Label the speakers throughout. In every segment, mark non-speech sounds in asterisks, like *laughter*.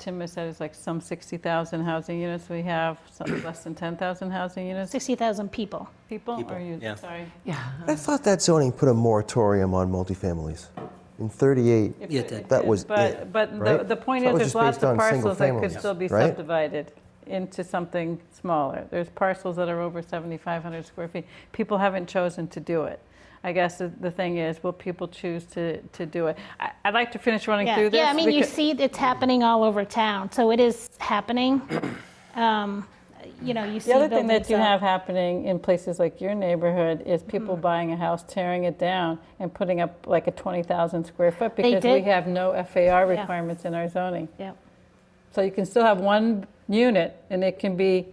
Speaker 1: Tim has said it's like some 60,000 housing units we have,
Speaker 2: *coughs*
Speaker 1: some less than 10,000 housing units.
Speaker 3: 60,000 people.
Speaker 1: People,
Speaker 4: People,
Speaker 1: are you,
Speaker 4: yeah.
Speaker 1: sorry.
Speaker 5: Yeah.
Speaker 2: I thought that zoning put a moratorium on multifamilies. In 38,
Speaker 1: If
Speaker 4: Yeah,
Speaker 1: it-
Speaker 4: that-
Speaker 2: That was
Speaker 1: but-
Speaker 2: it,
Speaker 1: But the,
Speaker 2: right?
Speaker 1: the point
Speaker 2: So
Speaker 1: is,
Speaker 2: it was
Speaker 1: there's
Speaker 2: just
Speaker 1: lots
Speaker 2: based
Speaker 1: of
Speaker 2: on single
Speaker 1: parcels that could
Speaker 2: families,
Speaker 1: still be
Speaker 2: right?
Speaker 1: subdivided into something smaller. There's parcels that are over 7,500 square feet. People haven't chosen to do it. I guess the, the thing is, will people choose to, to do it? I, I'd like to finish running
Speaker 3: Yeah,
Speaker 1: through this.
Speaker 3: yeah, I mean, you
Speaker 1: because-
Speaker 3: see it's happening all over town, so it is
Speaker 1: *clears throat*
Speaker 3: happening. Um, You know, you see
Speaker 1: The other
Speaker 3: buildings
Speaker 1: thing that you
Speaker 3: up. Mm-hmm.
Speaker 1: have happening in places like your neighborhood is people buying a house, tearing it down, and putting up like a 20,000 square foot because we
Speaker 3: did.
Speaker 1: have no FAR requirements in our zoning.
Speaker 3: Yep.
Speaker 1: So you can still have one unit, and it can be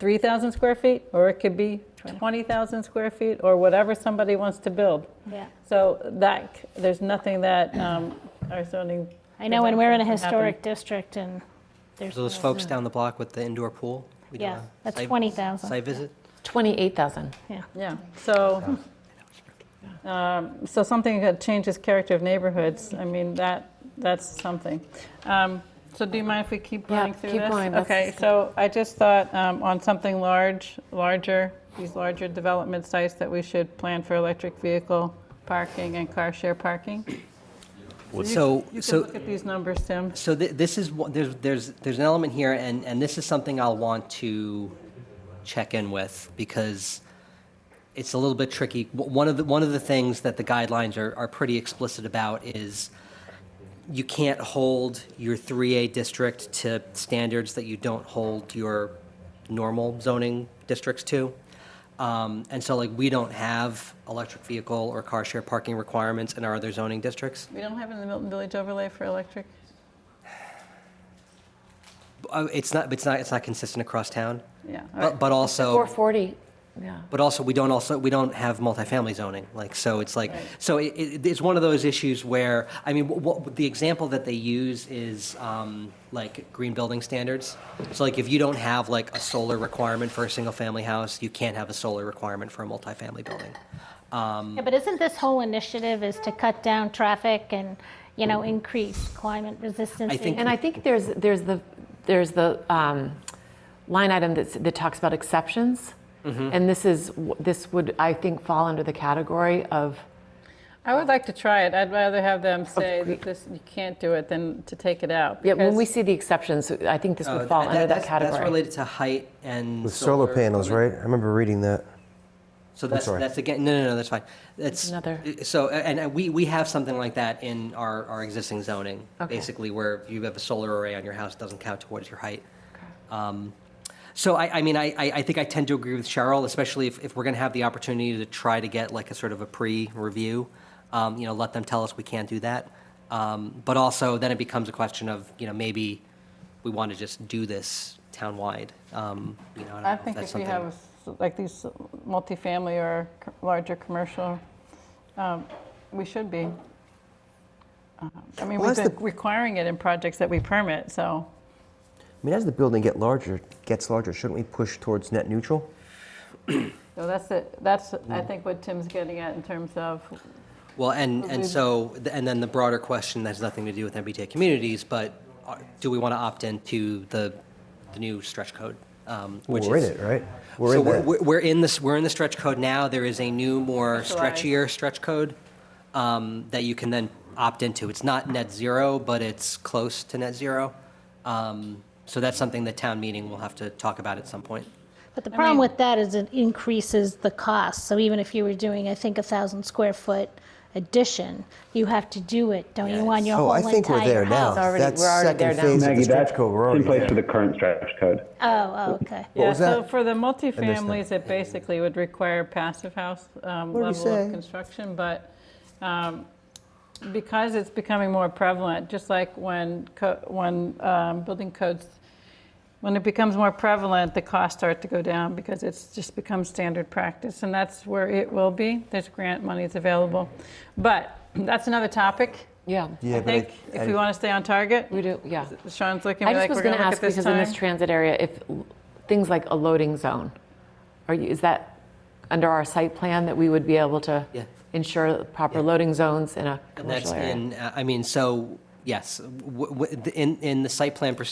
Speaker 1: 3,000 square feet, or it could be 20,000 square feet, or whatever somebody wants to build.
Speaker 3: Yeah.
Speaker 1: So that, c- there's nothing that um, our zoning.
Speaker 3: I know, and we're in a
Speaker 1: prevents from happening.
Speaker 3: historic district and there's.
Speaker 4: Those
Speaker 3: no-
Speaker 4: folks down the block with the indoor pool? we did
Speaker 3: Yeah,
Speaker 4: a
Speaker 3: that's
Speaker 4: site-
Speaker 3: 20,000,
Speaker 4: Site visit?
Speaker 5: 28,000.
Speaker 3: Yeah.
Speaker 1: Yeah, so, um, so something that changes character of neighborhoods, I mean, that, that's something. Um, So do you mind if we keep
Speaker 5: Yeah,
Speaker 1: running through this?
Speaker 5: keep going, let's
Speaker 1: Okay,
Speaker 5: just go.
Speaker 1: so I just thought um, on something large, larger, these larger development sites that we should plan for electric vehicle parking and car share parking.
Speaker 4: So,
Speaker 1: You can
Speaker 4: so.
Speaker 1: look at these numbers, Tim.
Speaker 4: So th- this is, wha- there's, there's, there's an element here, and, and this is something I'll want to check in with, because it's a little bit tricky. W- One of the, one of the things that the guidelines are, are pretty explicit about is you can't hold your 3A district to standards that you don't hold your normal zoning districts to. Um, And so like, we don't have electric vehicle or car share parking requirements in our other zoning districts.
Speaker 1: We don't have it in the Milton Village overlay for electric?
Speaker 4: Uh, It's not, it's not, it's not consistent across town.
Speaker 1: Yeah, all
Speaker 4: But, but also,
Speaker 5: 440, yeah.
Speaker 4: but also, we don't also, we don't have multifamily zoning, like, so it's like, so it, it- it's one of those issues where, I mean, what, the example that they use is, um, like, green building standards. So like, if you don't have like a solar requirement for a single-family house, you can't have a solar requirement for a multifamily building.
Speaker 3: Yeah, but isn't this whole initiative is to cut down traffic and, you know, increase climate resistance?
Speaker 4: think-
Speaker 5: And I think there's, there's the, there's the um, line item that's, that talks about exceptions.
Speaker 4: Mm-hmm.
Speaker 5: And this is, w- this would, I think, fall under the category of,
Speaker 1: I would like to try it. I'd rather have them say that this, you can't do it than to take it out.
Speaker 5: yeah, when
Speaker 1: because-
Speaker 5: we see the exceptions, I think this
Speaker 4: Uh,
Speaker 5: would fall
Speaker 4: that-
Speaker 5: under that
Speaker 4: that's- That's
Speaker 5: category.
Speaker 4: related to height and.
Speaker 2: with solar panels,
Speaker 4: equipment.
Speaker 2: right? I remember reading that.
Speaker 4: So that's,
Speaker 2: sorry.
Speaker 4: that's again, no, no, no, that's fine. That's.
Speaker 5: Another-
Speaker 4: So, and uh, we, we have something like that in our, our existing zoning, basically, where if you have a solar array on your house, it doesn't count towards your height. Um, So I, I mean, I, I I think I tend to agree with Cheryl, especially if, if we're gonna have the opportunity to try to get like a sort of a pre-review. Um, you know, let them tell us we can't do that. Um, but also, then it becomes a question of, you know, maybe we want to just do this townwide. Um, you know, I don't know
Speaker 1: I
Speaker 4: if
Speaker 1: think
Speaker 4: that's
Speaker 1: if you
Speaker 4: something-
Speaker 1: have, s- like these multifamily or c- larger commercial, um, we should be. Um, I mean,
Speaker 2: Well,
Speaker 1: we've
Speaker 2: that's
Speaker 1: been requiring it in projects that we permit, so.
Speaker 2: I mean, as the building get larger, gets larger, shouldn't we push towards net neutral?
Speaker 1: So that's it, that's, I think what Tim's getting at in terms of,
Speaker 4: Well, and, and so, th- and then the broader question that has nothing to do with MBTA communities, but are- do we want to opt into the, the new stretch code? um, which
Speaker 2: We're in
Speaker 4: is-
Speaker 2: it, right? We're
Speaker 4: So
Speaker 2: in
Speaker 4: we're,
Speaker 2: that.
Speaker 4: we're we're in this, we're in the stretch code now. There is a new, more
Speaker 1: Specialized.
Speaker 4: stretchier stretch code um, that you can then opt into. It's not net zero, but it's close to net zero. Um, So that's something that town meeting will have to talk about at some point.
Speaker 3: But the problem with that is it increases the cost. So even if you were doing, I think, a thousand square foot addition, you have to do it, don't you, on your
Speaker 2: Oh,
Speaker 3: whole
Speaker 2: I
Speaker 3: entire house?
Speaker 2: think we're there now.
Speaker 5: It's already-
Speaker 2: That's
Speaker 5: we're already there
Speaker 2: second
Speaker 5: now.
Speaker 2: phase of the
Speaker 6: Maggie,
Speaker 2: stretch
Speaker 6: that's
Speaker 2: code. We're
Speaker 6: in
Speaker 2: already
Speaker 6: place
Speaker 2: there.
Speaker 6: for the current stretch code.
Speaker 3: Oh, oh, okay.
Speaker 1: yeah,
Speaker 2: was
Speaker 1: so
Speaker 2: that?
Speaker 1: for the multifamilies, it basically would require passive house um,
Speaker 2: What did he
Speaker 1: level of
Speaker 2: say?
Speaker 1: construction, but um, because it's becoming more prevalent, just like when, co- when um, building codes when it becomes more prevalent, the costs start to go down because it's just become standard practice, and that's where it will be. There's grant monies available, but that's another topic.
Speaker 5: Yeah,
Speaker 2: Yeah,
Speaker 1: I
Speaker 2: but I-
Speaker 1: think if
Speaker 2: I-
Speaker 1: we want to stay on target,
Speaker 5: we do, yeah.
Speaker 1: Sean's looking
Speaker 5: I
Speaker 1: at me
Speaker 5: just
Speaker 1: like
Speaker 5: was
Speaker 1: we're going
Speaker 5: going to
Speaker 1: to look
Speaker 5: ask
Speaker 1: at this
Speaker 5: because in this
Speaker 1: time.
Speaker 5: transit area, if l- things like a loading zone, are you, is that under our site plan that we would be able to
Speaker 4: Yeah.
Speaker 5: ensure proper loading zones in a
Speaker 4: And that's
Speaker 5: commercial area?
Speaker 4: in, uh, I mean, so yes, w- w- in, in the site plan procedure